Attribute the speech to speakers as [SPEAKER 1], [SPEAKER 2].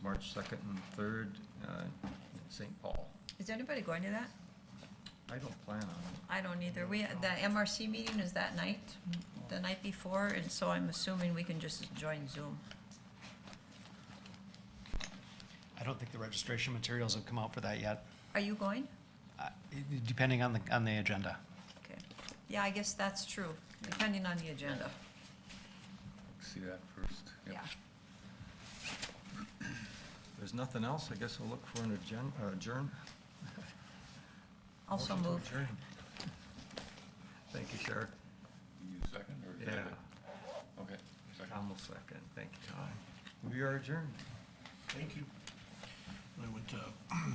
[SPEAKER 1] March 2nd and 3rd uh, in St. Paul.
[SPEAKER 2] Is anybody going to that?
[SPEAKER 1] I don't plan on it.
[SPEAKER 2] I don't either. We, the MRC meeting is that night, the night before, and so I'm assuming we can just join Zoom.
[SPEAKER 3] I don't think the registration materials have come out for that yet,
[SPEAKER 2] Are you going?
[SPEAKER 3] Uh, it- depending on the, on the agenda.
[SPEAKER 2] Okay. Yeah, I guess that's true, depending on the agenda.
[SPEAKER 4] See that first. Yep.
[SPEAKER 2] Yeah.
[SPEAKER 1] If there's nothing else, I guess I'll look for an adjourn- uh, adjourn.
[SPEAKER 2] Also
[SPEAKER 1] Motion to
[SPEAKER 2] move.
[SPEAKER 1] adjourn. Thank you, Sheriff.
[SPEAKER 4] You second or?
[SPEAKER 1] Yeah,
[SPEAKER 4] Okay, second.
[SPEAKER 1] Tom will second. Thank you, Tom. We are adjourned. uh,
[SPEAKER 5] Thank you. I went to